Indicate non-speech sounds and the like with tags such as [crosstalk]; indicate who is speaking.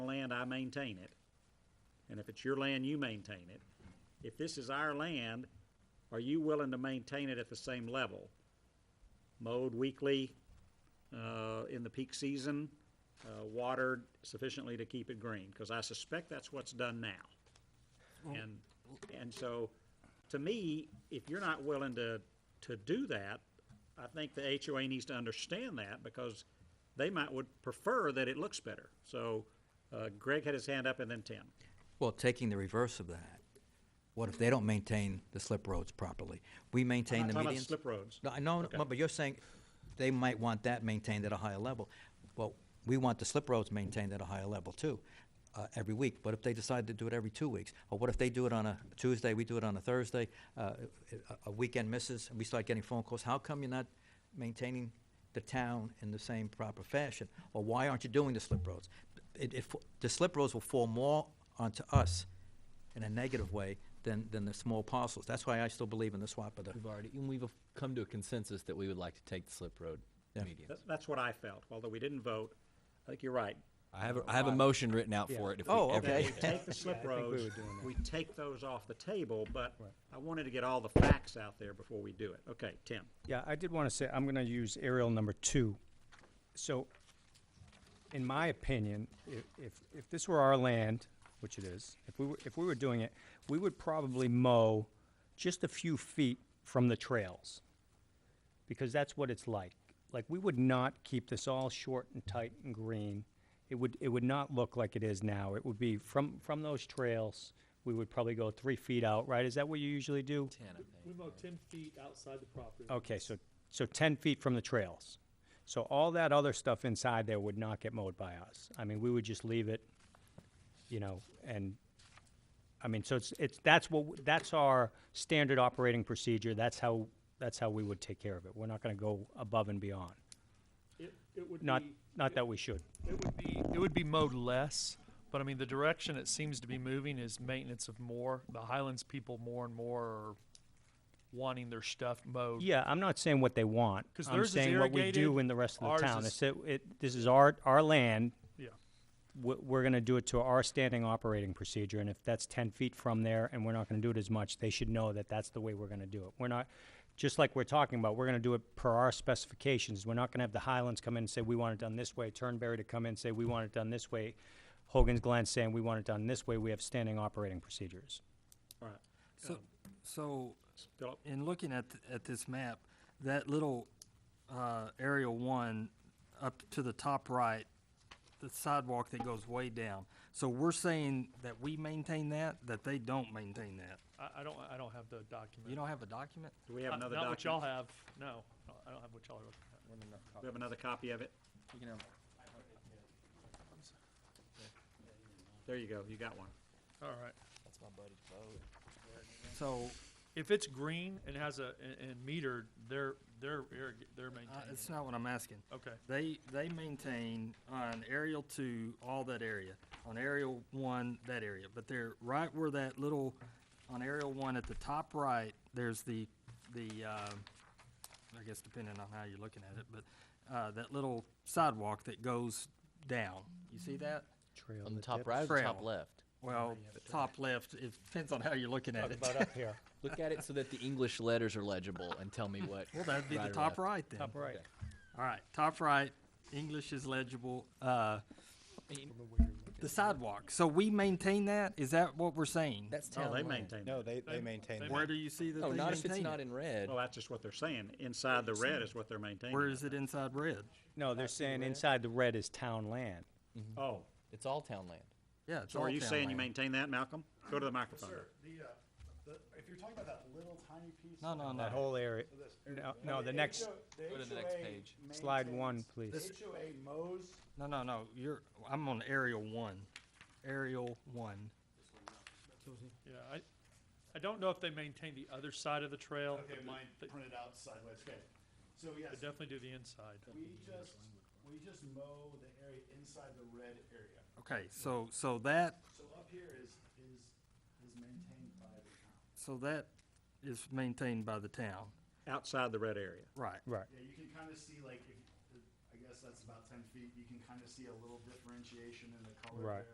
Speaker 1: land, I maintain it. And if it's your land, you maintain it. If this is our land, are you willing to maintain it at the same level? Mowed weekly, uh, in the peak season, uh, watered sufficiently to keep it green? Because I suspect that's what's done now. And, and so, to me, if you're not willing to, to do that, I think the HOA needs to understand that because they might would prefer that it looks better. So uh, Greg had his hand up and then Tim.
Speaker 2: Well, taking the reverse of that, what if they don't maintain the slip roads properly? We maintain
Speaker 1: I'm
Speaker 2: the
Speaker 1: talking about
Speaker 2: medians.
Speaker 1: slip roads.
Speaker 2: No, I know, no, but you're saying they might want that maintained at a higher level. Well, we want the slip roads maintained at a higher level too, uh, every week. What if they decide to do it every two weeks? Or what if they do it on a Tuesday, we do it on a Thursday, uh, a, a weekend misses, and we start getting phone calls, how come you're not maintaining the town in the same proper fashion? Or why aren't you doing the slip roads? It, it, the slip roads will fall more onto us in a negative way than, than the small parcels. That's why I still believe in the swap of the,
Speaker 3: We've already, and we've come to a consensus that we would like to take the slip road
Speaker 2: Yeah.
Speaker 3: median.
Speaker 1: That- That's what I felt, although we didn't vote. I think you're right.
Speaker 3: I have, a, I have a motion written out for it. If
Speaker 2: Oh,
Speaker 3: we ever-
Speaker 2: okay.
Speaker 1: That we
Speaker 2: [laughs]
Speaker 1: take the slip roads, we take those off the table, but I wanted to get all the facts out there before we do it. Okay, Tim.
Speaker 4: Yeah, I did want to say, I'm going to use aerial number two. So, in my opinion, if, if, if this were our land, which it is, if we were, if we were doing it, we would probably mow just a few feet from the trails. Because that's what it's like. Like, we would not keep this all short and tight and green. It would, it would not look like it is now. It would be from, from those trails, we would probably go three feet out, right? Is that what you usually do?
Speaker 5: We mow ten feet outside the property.
Speaker 4: Okay, so, so ten feet from the trails. So all that other stuff inside there would not get mowed by us. I mean, we would just leave it, you know, and, I mean, so it's, it's, that's what, w- that's our standard operating procedure. That's how, that's how we would take care of it. We're not gonna go above and beyond.
Speaker 5: It, it would
Speaker 4: Not,
Speaker 5: be,
Speaker 4: not that we should.
Speaker 5: it would be, it would be mowed less, but I mean, the direction it seems to be moving is maintenance of more. The Highlands people more and more are wanting their stuff mowed.
Speaker 4: Yeah, I'm not saying what they want.
Speaker 5: 'Cause
Speaker 4: I'm
Speaker 5: theirs is
Speaker 4: saying what we do
Speaker 5: irrigated,
Speaker 4: in the rest of
Speaker 5: ours
Speaker 4: the town.
Speaker 5: is-
Speaker 4: It's, it, this is our, our land,
Speaker 5: Yeah.
Speaker 4: we're, we're gonna do it to our standing operating procedure, and if that's ten feet from there and we're not gonna do it as much, they should know that that's the way we're gonna do it. We're not, just like we're talking about, we're gonna do it per our specifications. We're not gonna have the Highlands come in and say, we want it done this way, Turnberry to come in and say, we want it done this way, Hogan's Glen saying, we want it done this way, we have standing operating procedures.
Speaker 1: All right.
Speaker 6: So, so
Speaker 1: Philip,
Speaker 6: in looking at, th- at this map, that little uh, area one up to the top right, the sidewalk that goes way down. So we're saying that we maintain that, that they don't maintain that.
Speaker 5: I, I don't, I don't have the document.
Speaker 6: You don't have a document?
Speaker 1: do we have
Speaker 5: Uh,
Speaker 1: another
Speaker 5: Not what y'all
Speaker 1: document?
Speaker 5: have, no. I don't have what y'all are looking at.
Speaker 1: We have another copy of it? There you go, you got one.
Speaker 6: Oh,
Speaker 5: All right.
Speaker 6: So
Speaker 5: If it's green and has a, and, and metered, they're, they're, irrig- they're
Speaker 6: uh,
Speaker 5: maintaining
Speaker 6: it's
Speaker 5: it.
Speaker 6: not what I'm asking.
Speaker 5: Okay.
Speaker 6: They, they maintain on aerial two, all that area, on aerial one, that area, but they're right where that little, on aerial one at the top right, there's the, the, um I guess depending on how you're looking at it, but, uh, that little sidewalk that goes down, you see that?
Speaker 4: Trail
Speaker 3: On the
Speaker 4: that
Speaker 3: top
Speaker 4: dips.
Speaker 3: right or the top
Speaker 6: Trail.
Speaker 3: left?
Speaker 6: Well, top left, it depends on how you're looking at
Speaker 4: Talk
Speaker 6: it.
Speaker 4: about
Speaker 6: [laughs]
Speaker 4: up here,
Speaker 3: Look at it so that the English letters are legible and tell me what.
Speaker 6: Well, that'd be the
Speaker 3: or
Speaker 6: top
Speaker 3: left. Oh,
Speaker 6: right then.
Speaker 4: top right.
Speaker 6: All right, top right, English is legible. Uh, the sidewalk. So we maintain that? Is that what we're saying?
Speaker 2: that's town
Speaker 1: Oh, they
Speaker 2: land.
Speaker 1: maintain that.
Speaker 7: No, they, they maintain
Speaker 5: they
Speaker 7: that.
Speaker 6: Where do you see that
Speaker 3: No,
Speaker 6: they
Speaker 3: Oh, not if
Speaker 6: maintain
Speaker 3: it's
Speaker 6: it?
Speaker 3: not in red.
Speaker 1: Well, that's just what they're saying. Inside the red is what they're maintaining.
Speaker 6: Where is it inside red?
Speaker 4: No, they're saying inside the red is town land.
Speaker 1: Oh,
Speaker 3: It's all town land.
Speaker 6: Yeah, it's
Speaker 1: so
Speaker 6: all
Speaker 1: are you
Speaker 6: town
Speaker 1: saying you
Speaker 6: land.
Speaker 1: maintain that, Malcolm? Go to the microphone.
Speaker 8: The, uh, the, if you're talking about that little tiny piece.
Speaker 6: No, no, no.
Speaker 4: That whole area, no, no, the next,
Speaker 3: Go to the next page.
Speaker 4: Slide one, please. This-
Speaker 8: HOA mows,
Speaker 6: No, no, no. You're. I'm on aerial one. Aerial one.
Speaker 5: Yeah, I, I don't know if they maintain the other side of Oh, the trail.
Speaker 8: okay,
Speaker 5: but
Speaker 8: mine
Speaker 5: They
Speaker 8: printed out sideways, okay. So
Speaker 5: they
Speaker 8: yes,
Speaker 5: definitely do the inside.
Speaker 8: we just, we just mow the area inside the red area.
Speaker 6: Okay, so so that
Speaker 8: So up here is, is, is maintained by the town.
Speaker 6: so that is maintained by the town.
Speaker 1: Outside the red area.
Speaker 6: Right.
Speaker 4: right.
Speaker 8: Yeah, you can kind of see like, if, I guess that's about ten feet, you can kind of see a little differentiation in the color
Speaker 4: Right.
Speaker 8: there.